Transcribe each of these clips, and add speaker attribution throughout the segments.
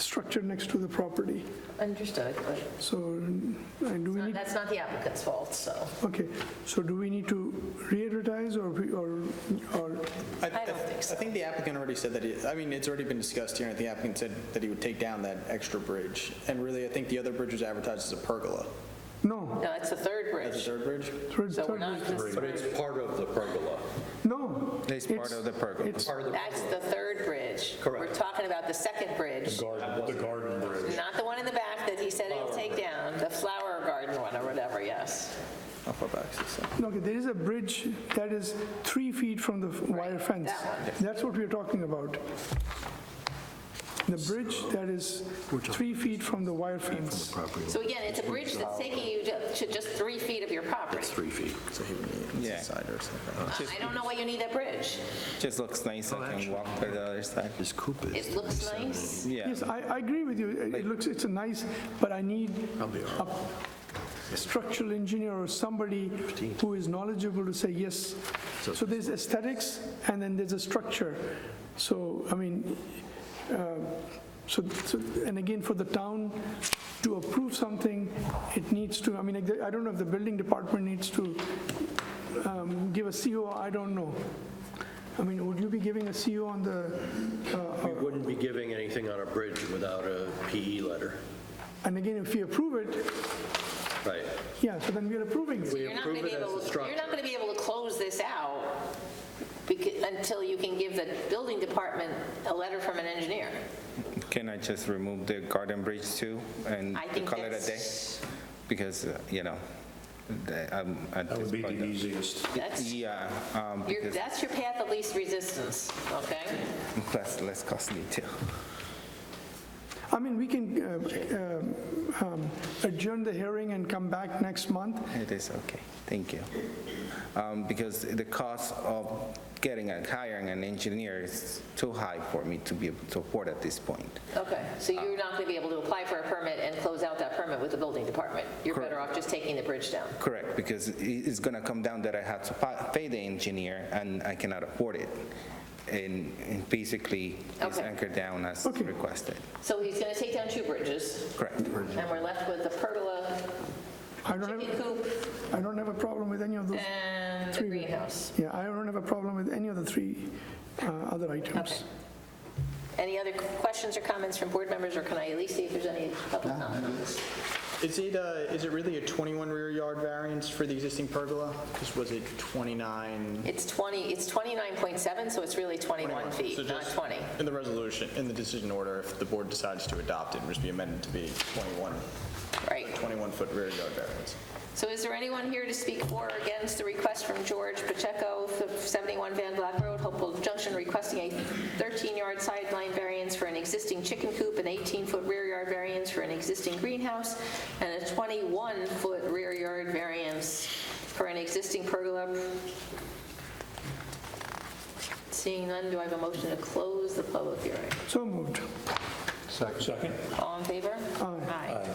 Speaker 1: structure next to the property.
Speaker 2: Understood, but
Speaker 1: So, and do we need,
Speaker 2: that's not the applicant's fault, so
Speaker 1: okay, so do we need to re-advertise or, we- or, or,
Speaker 3: I don't think so. I think the applicant already said that, he- I mean, it's already been discussed here, and the applicant said that he would take down that extra bridge. And really, I think the other bridge was advertised as a pergola.
Speaker 1: no?
Speaker 2: no, it's the third
Speaker 3: That's
Speaker 2: bridge.
Speaker 3: the third bridge?
Speaker 1: third-
Speaker 2: So we're
Speaker 1: third-
Speaker 2: not just,
Speaker 4: But it's part of the pergola.
Speaker 1: No.
Speaker 5: It's part of the pergola.
Speaker 1: it's-
Speaker 4: Part of the,
Speaker 2: that's the third bridge. We're talking about the second bridge,
Speaker 6: Garden, the garden bridge.
Speaker 2: not the one in the back that he said he'll take down, the flower garden one or whatever, yes.
Speaker 3: How far back is this?
Speaker 1: Okay, there is a bridge that is three feet from the wire fence. That's what we're talking about. The bridge that is three feet from the wire fence.
Speaker 2: So again, it's a bridge that's taking you to to just three feet of your property.
Speaker 4: three feet.
Speaker 3: So he would need
Speaker 5: Yeah.
Speaker 3: a side or something.
Speaker 2: I I don't know why you need that bridge.
Speaker 5: Just looks nice. I can walk to the other side.
Speaker 2: It looks nice.
Speaker 5: Yeah.
Speaker 1: Yes, I, I agree with you. It- It looks, it's a nice, but I need a structural engineer or somebody who is knowledgeable to say, yes. So there's aesthetics, and then there's a structure. So, I mean, uh, so, so- and again, for the town to approve something, it needs to, I mean, I don't know if the building department needs to um, give a CO, I don't know. I mean, would you be giving a CO on the, uh,
Speaker 4: We wouldn't be giving anything on a bridge without a PE letter.
Speaker 1: and again, if we approve it,
Speaker 4: Right.
Speaker 1: Yeah, so then we're approving it.
Speaker 4: We
Speaker 2: You're not going
Speaker 4: approve
Speaker 2: to be
Speaker 4: it as
Speaker 2: able,
Speaker 4: a structure.
Speaker 2: you're not going to be able to close this out becau- until you can give the building department a letter from an engineer.
Speaker 5: Can I just remove the garden bridge too and
Speaker 2: I think
Speaker 5: call it a day?
Speaker 2: that's,
Speaker 5: Because, uh, you know, the- I'm at
Speaker 6: That
Speaker 5: this
Speaker 6: would be the
Speaker 5: point. uh,
Speaker 6: easiest.
Speaker 2: that's,
Speaker 5: Yeah, um,
Speaker 2: your-
Speaker 5: because
Speaker 2: that's your path of least resistance, okay?
Speaker 5: that's less costly too.
Speaker 1: I mean, we can uh, uh, um, adjourn the hearing and come back next month.
Speaker 5: It is okay, thank you. Um, Because the cost of getting and hiring an engineer is too high for me to be able to afford at this point.
Speaker 2: Okay, so you're not going to be able to apply for a permit and close out that permit with the building department. You're better off just taking the bridge down.
Speaker 5: Correct, because i- it's going to come down that I had to pa- pay the engineer and I cannot afford it. And and basically, it's
Speaker 2: Okay.
Speaker 5: anchored down as
Speaker 1: Okay.
Speaker 5: requested.
Speaker 2: So he's going to take down two bridges,
Speaker 5: Correct.
Speaker 2: and we're left with the pergola,
Speaker 1: I don't
Speaker 2: chicken
Speaker 1: have,
Speaker 2: coop,
Speaker 1: I don't have a problem with any of those.
Speaker 2: and the
Speaker 1: Three.
Speaker 2: greenhouse.
Speaker 1: Yeah, I don't have a problem with any of the three uh, other
Speaker 2: Okay.
Speaker 1: items.
Speaker 2: Any other questions or comments from board members, or can I at least see if there's any public comment on this?
Speaker 3: Is it, uh, is it really a 21 rear yard variance for the existing pergola? Because was it 29?
Speaker 2: It's 20, it's 29.7, so it's really 21 feet,
Speaker 3: So
Speaker 2: not
Speaker 3: just
Speaker 2: 20.
Speaker 3: In the resolution, in the decision order, if the board decides to adopt it, it would just be amended to be 21,
Speaker 2: Right.
Speaker 3: 21-foot rear yard variance.
Speaker 2: So is there anyone here to speak for or against the request from George Pacheco, 71 Van Black Road, Hopewell Junction, requesting a 13-yard sideline variance for an existing chicken coop, an 18-foot rear yard variance for an existing greenhouse, and a 21-foot rear yard variance for an existing pergola? Seeing none, do I have a motion to close the public hearing?
Speaker 1: So moved.
Speaker 6: Second?
Speaker 2: All in favor? Aye.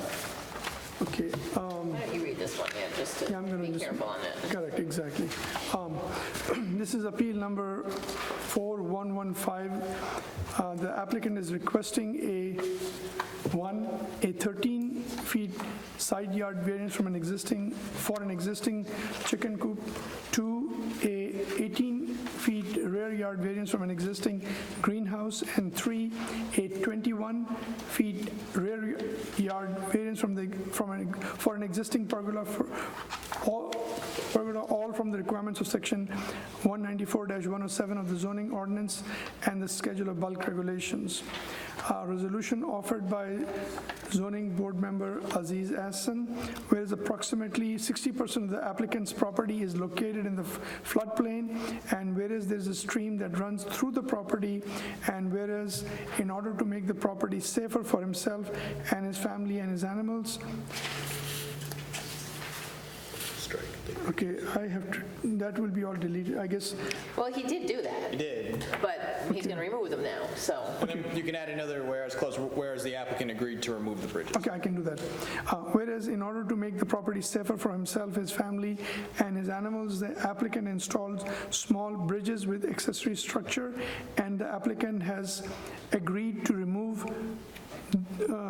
Speaker 1: Okay, uh,
Speaker 2: Why don't you read this one, yeah, just
Speaker 1: Yeah, I'm
Speaker 2: to
Speaker 1: gonna
Speaker 2: be
Speaker 1: just-
Speaker 2: careful on it.
Speaker 1: correct, exactly. Um, This is appeal number 4115. Uh, The applicant is requesting a, one, a 13-feet side yard variance from an existing, for an existing chicken coop. Two, a 18-feet rear yard variance from an existing greenhouse. And three, a 21-feet rear yard variance from the, from an, for an existing pergola for, all, pergola, all from the requirements of section 194-107 of the zoning ordinance and the schedule of bulk regulations. A resolution offered by zoning board member Aziz Hassan, whereas approximately 60% of the applicant's property is located in the floodplain, and whereas there's a stream that runs through the property, and whereas in order to make the property safer for himself and his family and his animals, Okay, I have, to that will be all deleted, I guess.
Speaker 2: Well, he did do that.
Speaker 3: You did.
Speaker 2: But he's going to remove them now, so.
Speaker 3: And then you can add another whereas clause, whereas the applicant agreed to remove the bridges.
Speaker 1: Okay, I can do that. Uh, Whereas in order to make the property safer for himself, his family, and his animals, the applicant installed small bridges with accessory structure, and the applicant has agreed to remove uh,